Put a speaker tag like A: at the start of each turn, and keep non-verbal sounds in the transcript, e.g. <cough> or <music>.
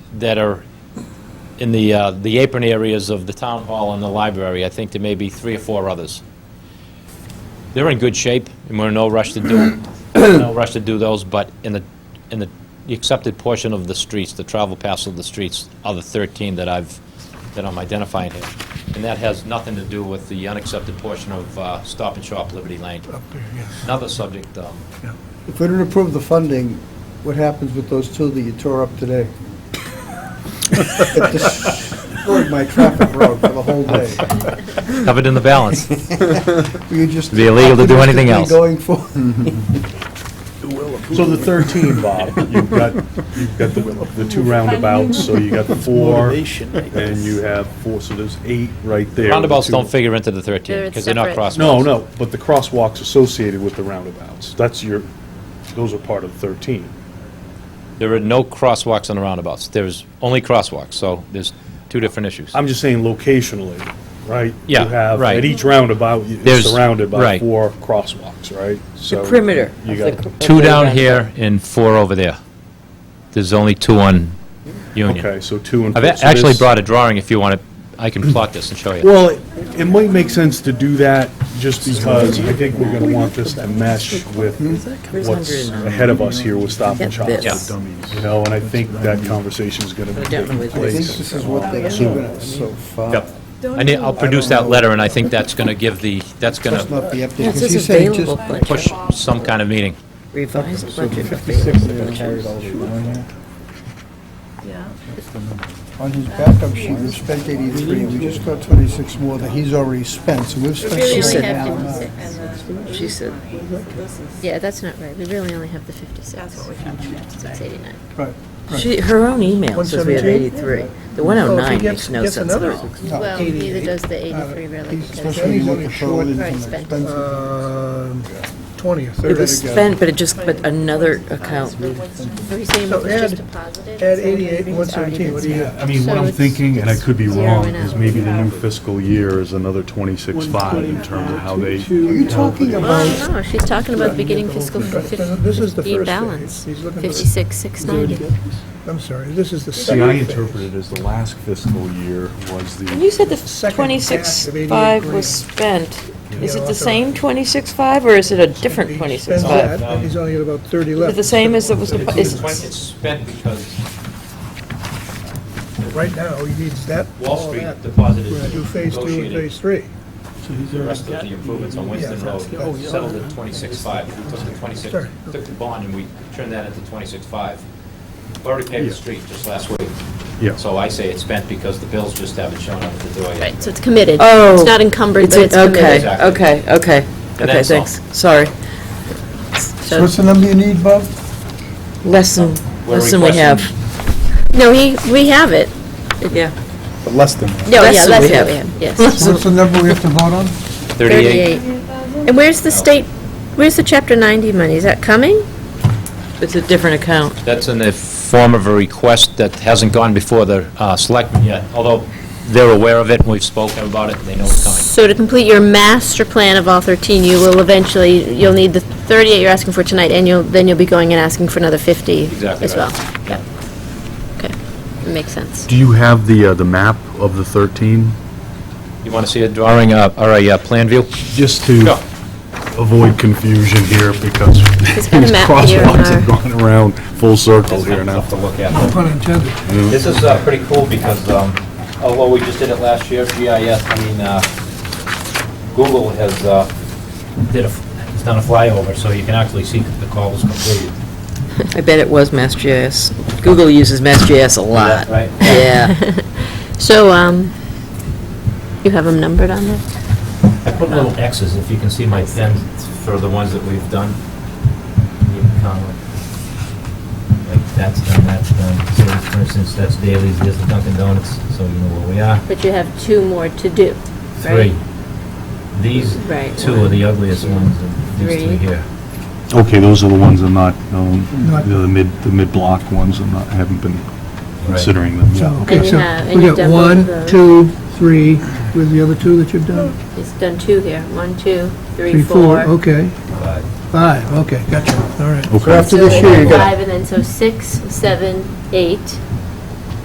A: that are in the, uh, the apron areas of the town hall and the library. I think there may be three or four others. They're in good shape, and we're in no rush to do, no rush to do those, but in the, in the accepted portion of the streets, the travel paths of the streets, are the 13 that I've, that I'm identifying here. And that has nothing to do with the unaccepted portion of uh, Stop and Shop Liberty Lane.
B: up there, yes.
A: Another subject, um,
C: If we don't approve the funding, what happens with those two that you tore up today? It destroyed my traffic road for the whole day.
A: covered in the
B: <laughs>
A: balance.
C: Were you just...
A: Be illegal to do anything
C: optimistically
A: else.
C: Going for,
D: So the 13, Bob, you've got, you've got the, the two roundabouts, so you got four, and you have four, so there's eight right there.
A: Roundabouts
D: The two-
A: don't figure into the 13,
E: They're
A: because they're not
E: separate.
A: crosswalks.
D: No, no, but the crosswalks associated with the roundabouts, that's your, those are part of 13.
A: There are no crosswalks on the roundabouts. There's only crosswalks, so there's two different issues.
D: I'm just saying locationally, right?
A: Yeah,
D: You have,
A: right.
D: at each roundabout, you-
A: There's-
D: it's surrounded by
A: right.
D: four crosswalks, right? So
F: perimeter
D: You
F: of the
D: got,
F: cr-
A: Two
F: of the
A: down
F: roundabout.
A: here and four over there. There's only two on Union.
D: okay, so two and.
A: I've
D: four.
A: a-
D: So
A: actually
D: this-
A: brought a drawing if you want to, I can plot this and show you.
D: Well, it- it might make sense to do that just because I think we're going to want this to mesh with what's ahead of us here with Stop and Shop.
F: Get
A: this.
D: You know, and I think that conversation is going to be
F: don't know
D: taking
F: where
C: I think
D: place.
C: this is what they've given us so far.
D: Yep.
A: I need, I'll produce that letter, and I think that's going to give the, that's going
C: Must
A: to
C: not be updated. 'cause
F: That's his
C: you say just-
F: available budget,
A: push some kind of meeting.
F: revised budget.
C: On his backup sheet, we've spent 83, we just got 26 more that he's already spent, so we've spent...
E: Really
F: said
E: only
C: 60
E: have
C: now.
E: fifty-six.
F: She said,
E: Yeah, that's not right. We really only have the fifty-six. That's what we It's eighty-nine.
C: Right.
F: she, her own email says we have
C: 117?
F: 83. The 109
B: gets-
F: makes no
B: gets
F: sense at
B: another-
F: all.
C: No,
E: Well,
C: 88.
E: neither does the eighty-three really.
C: He's-
E: because
C: Especially
B: He's
C: with
B: only
C: the
B: short-
C: short
E: Right,
C: and
E: spent.
C: expensive.
B: Um, 20 or 30.
F: It was spent, but it just, but another account, we-
E: Are you saying
B: So
E: it's just
B: add-
E: a positive?
B: Add
E: So it's
B: 88,
E: already
B: 117,
E: been
B: what do you
E: spent.
B: have?
D: I mean,
E: So
D: what I'm
E: it's
D: thinking, and I could be wrong,
E: zeroing
D: is
E: out.
D: maybe the new fiscal year is another 26.5 in terms of how they.
C: Are you talking about,
E: Oh, no, she's talking about beginning fiscal
B: This is the
E: fifteen
B: first
E: balance,
B: phase. He's looking for-
E: fifty-six, six ninety.
B: I'm sorry, this is the
D: See, I
B: second phase.
D: interpreted as the last fiscal year was
F: And you
D: the,
F: said the
B: Second batch of 88
F: 26.5
B: grand.
F: was spent. Is it
B: Yeah,
F: the
B: that's all
F: same 26.5 or is it a different
B: He spends
F: 26.5?
B: that, and he's only at about 30
F: Is it
B: left.
F: the same as it was, the-
A: It's
F: is,
A: spent because
B: Right now, he needs that,
A: Wall
B: all
A: Street
B: that.
A: deposited,
B: Do phase two and phase three.
A: the rest of the improvements on Winston
B: Yeah,
A: Road,
B: that's- oh, yeah.
A: settled at 26.5. We took the 26,
B: Sorry.
A: took the bond and we turned that into 26.5. We Already paved the
D: Yeah.
A: street just last week.
D: Yeah.
A: So I say it's spent because the bills just haven't shown up at the door yet.
E: Right, so it's committed.
F: Oh.
E: It's not encumbered, but it's committed.
F: okay, okay, okay. Okay,
A: that's all.
F: thanks, sorry.
C: so what's the number you need, Bob?
F: Less than,
A: We're
F: less than we have,
A: requesting-
E: No, we, we have it.
F: yeah.
B: But less than.
E: No,
F: Less
E: yeah,
F: than
E: that's
F: we
E: what
F: have.
E: we have, yes.
C: What's the number we have to vote on?
E: 38. And where's the state, where's the Chapter 90 money? Is that coming?
F: It's a different account.
A: That's in the form of a request that hasn't gone before the uh, selectmen yet, although they're aware of it, and we've spoken about it, and they know it's coming.
E: So to complete your master plan of all 13, you will eventually, you'll need the 38 you're asking for tonight, and you'll, then you'll be going and asking for another 50
A: Exactly
E: as well.
A: right.
E: Okay, that makes
C: <laughs>
E: sense.
D: do you have the, uh, the map of the 13?
A: You want to see a drawing, uh, or a uh, plan view?
D: Just to
A: Sure.
D: avoid confusion here, because <laughs> these
E: got a map here in
D: crosswalks have
E: our-
D: gone around full circle here now. Mm-hmm.
A: to look at.
B: Pun intended.
A: This is uh, pretty cool because, um, although we just did it last year, GIS, I mean, uh, Google has uh, did a, has done a flyover, so you can actually see the call was completed.
F: I bet it was MassGIS. Google uses MassGIS a lot.
A: Right?
F: Yeah.
E: So, um, you have them numbered on there?
A: I put little X's, if you can see my pen, for the ones that we've done. You can kind of Like, like that's done, that's done. So, for instance, that's Daley's, this is Dunkin' Donuts, so you know where we are.
E: But you have two more to do,
A: Three. These
E: Right,
A: two are the ugliest ones, and these
E: Three.
A: three here.
D: Okay, those are the ones I'm not, um,
B: Not-
D: the mid, the mid-block ones, I'm not, I haven't been considering them yet.
B: So,
E: And
B: okay,
E: you
B: so
E: have- and
B: we
E: you've
B: got
E: done both
B: one,
E: of those.
B: two, three, with the other two that you've done?
E: It's done two here, one, two, three,
B: Three, four,
E: four.
B: okay. Five, okay, gotcha, all right.
D: Okay.
C: After this year, you got
E: Five, and then so six, seven, eight,